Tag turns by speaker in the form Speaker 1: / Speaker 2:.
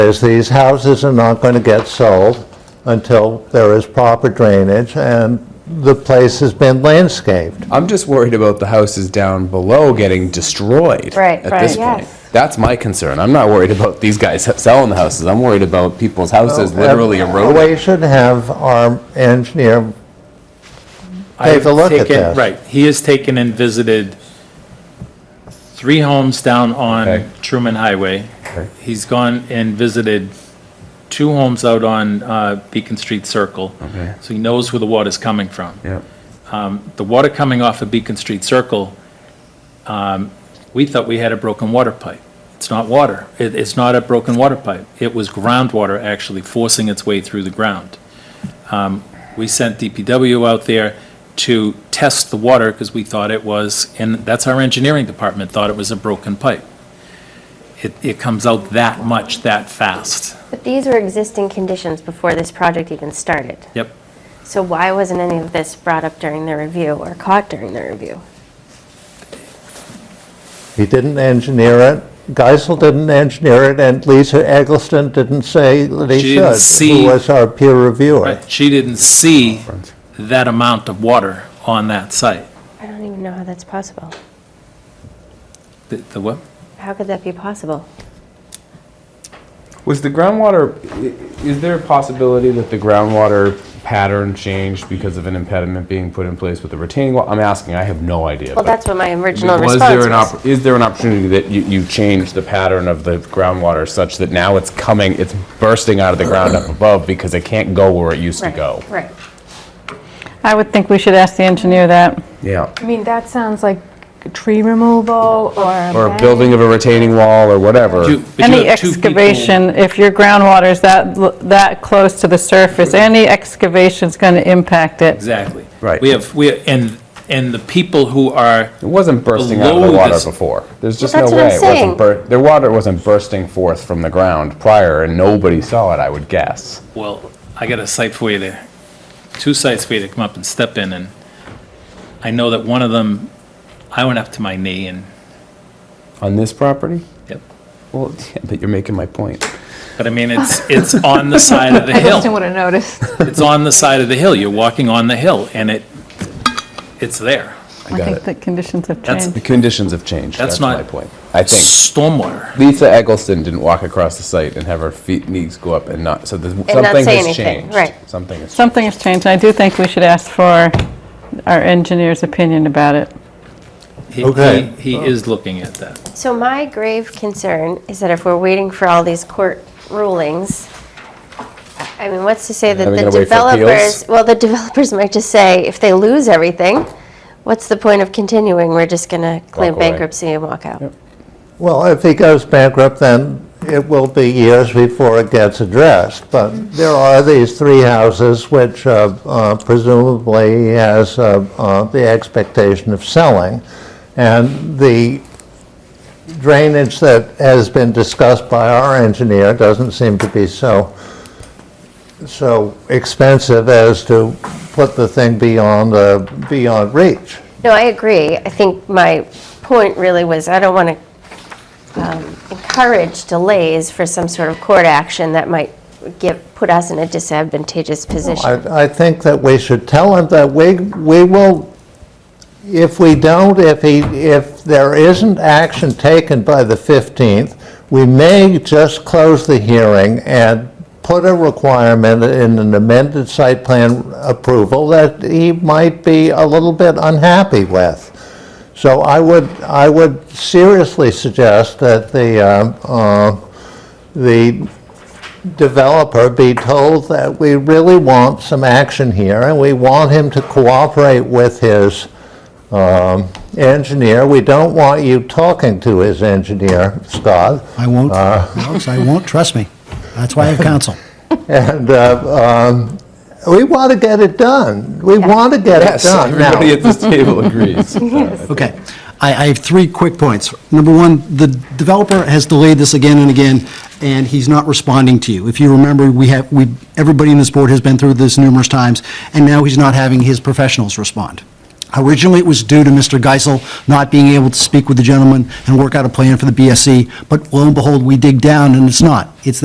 Speaker 1: is these houses are not going to get sold until there is proper drainage and the place has been landscaped.
Speaker 2: I'm just worried about the houses down below getting destroyed.
Speaker 3: Right,
Speaker 2: At this
Speaker 3: right.
Speaker 2: point.
Speaker 3: Yes.
Speaker 2: That's my concern. I'm not worried about these guys selling the houses. I'm worried about people's houses literally eroding.
Speaker 1: We should have our engineer Take a
Speaker 4: I've
Speaker 1: look at
Speaker 4: taken-
Speaker 1: that.
Speaker 4: Right, he has taken and visited three homes down
Speaker 2: Okay.
Speaker 4: on Truman Highway.
Speaker 2: Okay.
Speaker 4: He's gone and visited two homes out on uh, Beacon Street Circle.
Speaker 2: Okay.
Speaker 4: So he knows where the water's coming from.
Speaker 2: Yeah.
Speaker 4: Um, The water coming off of Beacon Street Circle, um, we thought we had a broken water pipe. It's not water. It- It's not a broken water pipe. It was groundwater actually forcing its way through the ground. Um, We sent DPW out there to test the water because we thought it was, and that's our engineering department, thought it was a broken pipe. It It comes out that much, that fast.
Speaker 3: But these were existing conditions before this project even started.
Speaker 4: Yep.
Speaker 3: So why wasn't any of this brought up during the review or caught during the review?
Speaker 1: He didn't engineer it, Geisel didn't engineer it, and Lisa Eggleston didn't say that he should.
Speaker 4: She didn't see-
Speaker 1: Who was our peer reviewer.
Speaker 4: Right. She didn't see that amount of water on that site.
Speaker 3: I don't even know how that's possible.
Speaker 4: The the what?
Speaker 3: How could that be possible?
Speaker 2: Was the groundwater, i- is there a possibility that the groundwater pattern changed because of an impediment being put in place with the retaining wall? I'm asking, I have no idea.
Speaker 3: Well,
Speaker 2: but-
Speaker 3: that's what my original
Speaker 2: Was there
Speaker 3: response
Speaker 2: an,
Speaker 3: was.
Speaker 2: opp- is there an opportunity that you, you change the pattern of the groundwater such that now it's coming, it's bursting out of the ground up above because it can't go where it used to
Speaker 3: Right,
Speaker 2: go?
Speaker 3: Right.
Speaker 5: I would think we should ask the engineer that.
Speaker 2: Yeah.
Speaker 6: I mean, that sounds like tree removal or a
Speaker 2: Or a
Speaker 6: bank.
Speaker 2: building of a retaining wall or whatever.
Speaker 4: You- but you
Speaker 5: Any
Speaker 4: have two people-
Speaker 5: excavation, if your groundwater's that, l- that close to the surface, any excavation's going to impact it.
Speaker 4: Exactly.
Speaker 2: Right.
Speaker 4: We have, we, and, and the people who are,
Speaker 2: It wasn't bursting out of the
Speaker 4: Below
Speaker 2: water
Speaker 4: this-
Speaker 2: before. There's just no
Speaker 3: that's
Speaker 2: way.
Speaker 3: what I'm
Speaker 2: it wasn't
Speaker 3: saying.
Speaker 2: bur- Their water wasn't bursting forth from the ground prior and nobody saw it, I would guess.
Speaker 4: well, I got a site for you there, two sites for you to come up and step in, and I know that one of them, I went up to my knee and,
Speaker 2: On this property?
Speaker 4: yep.
Speaker 2: Well, yeah, but you're making my point.
Speaker 4: But I mean, it's, it's on the side of the
Speaker 6: I just
Speaker 4: hill.
Speaker 6: would have noticed.
Speaker 4: It's on the side of the hill. You're walking on the hill, and it, it's there.
Speaker 2: I
Speaker 5: I
Speaker 2: got
Speaker 5: think
Speaker 2: it.
Speaker 5: the conditions have
Speaker 4: That's-
Speaker 2: The
Speaker 5: changed.
Speaker 2: conditions have changed.
Speaker 4: That's
Speaker 2: That's my
Speaker 4: not-
Speaker 2: point. I think.
Speaker 4: Stormwater.
Speaker 2: Lisa Eggleston didn't walk across the site and have her feet knees go up and not so there's,
Speaker 3: not
Speaker 2: something
Speaker 3: say
Speaker 2: has
Speaker 3: anything,
Speaker 2: changed.
Speaker 3: right.
Speaker 2: Something has
Speaker 5: Something has changed, I do think we should ask for our engineer's opinion about it.
Speaker 4: He-
Speaker 1: Okay.
Speaker 4: He, he is looking at that.
Speaker 3: So my grave concern is that if we're waiting for all these court rulings, I- I mean, what's to say that
Speaker 2: Are we
Speaker 3: the
Speaker 2: gonna wait for appeals?
Speaker 3: developers, well, the developers might just say, if they lose everything, what's the point of continuing? We're just going to claim
Speaker 2: away.
Speaker 3: bankruptcy and walk out.
Speaker 1: Well, if he goes bankrupt, then it will be years before it gets addressed. But there are these three houses which uh, uh, presumably he has uh, uh, the expectation of selling. And the drainage that has been discussed by our engineer doesn't seem to be so, so expensive as to put the thing beyond, uh, beyond reach.
Speaker 3: No, I agree. I think my point really was, I don't want to um, encourage delays for some sort of court action that might give, put us in a disadvantageous position.
Speaker 1: I, I think that we should tell him that we, we will, if we don't, if he, if there isn't action taken by the 15th, we may just close the hearing and put a requirement in an amended site plan approval that he might be a little bit unhappy with. So I would, I would seriously suggest that the, um, uh, the developer be told that we really want some action here, and we want him to cooperate with his um, engineer. We don't want you talking to his engineer, Scott.
Speaker 7: I won't, Alex, I won't, trust me. That's why I have counsel.
Speaker 1: And uh, um, we want to get it done. We want to get it
Speaker 2: Yes,
Speaker 1: done. Now,
Speaker 2: everybody at this table agrees.
Speaker 7: Okay, I, I have three quick points. Number one, the developer has delayed this again and again, and he's not responding to you. If you remember, we have, we, everybody in this board has been through this numerous times, and now he's not having his professionals respond. Originally, it was due to Mr. Geisel not being able to speak with the gentleman and work out a plan for the BSC, but lo and behold, we dig down, and it's not. It's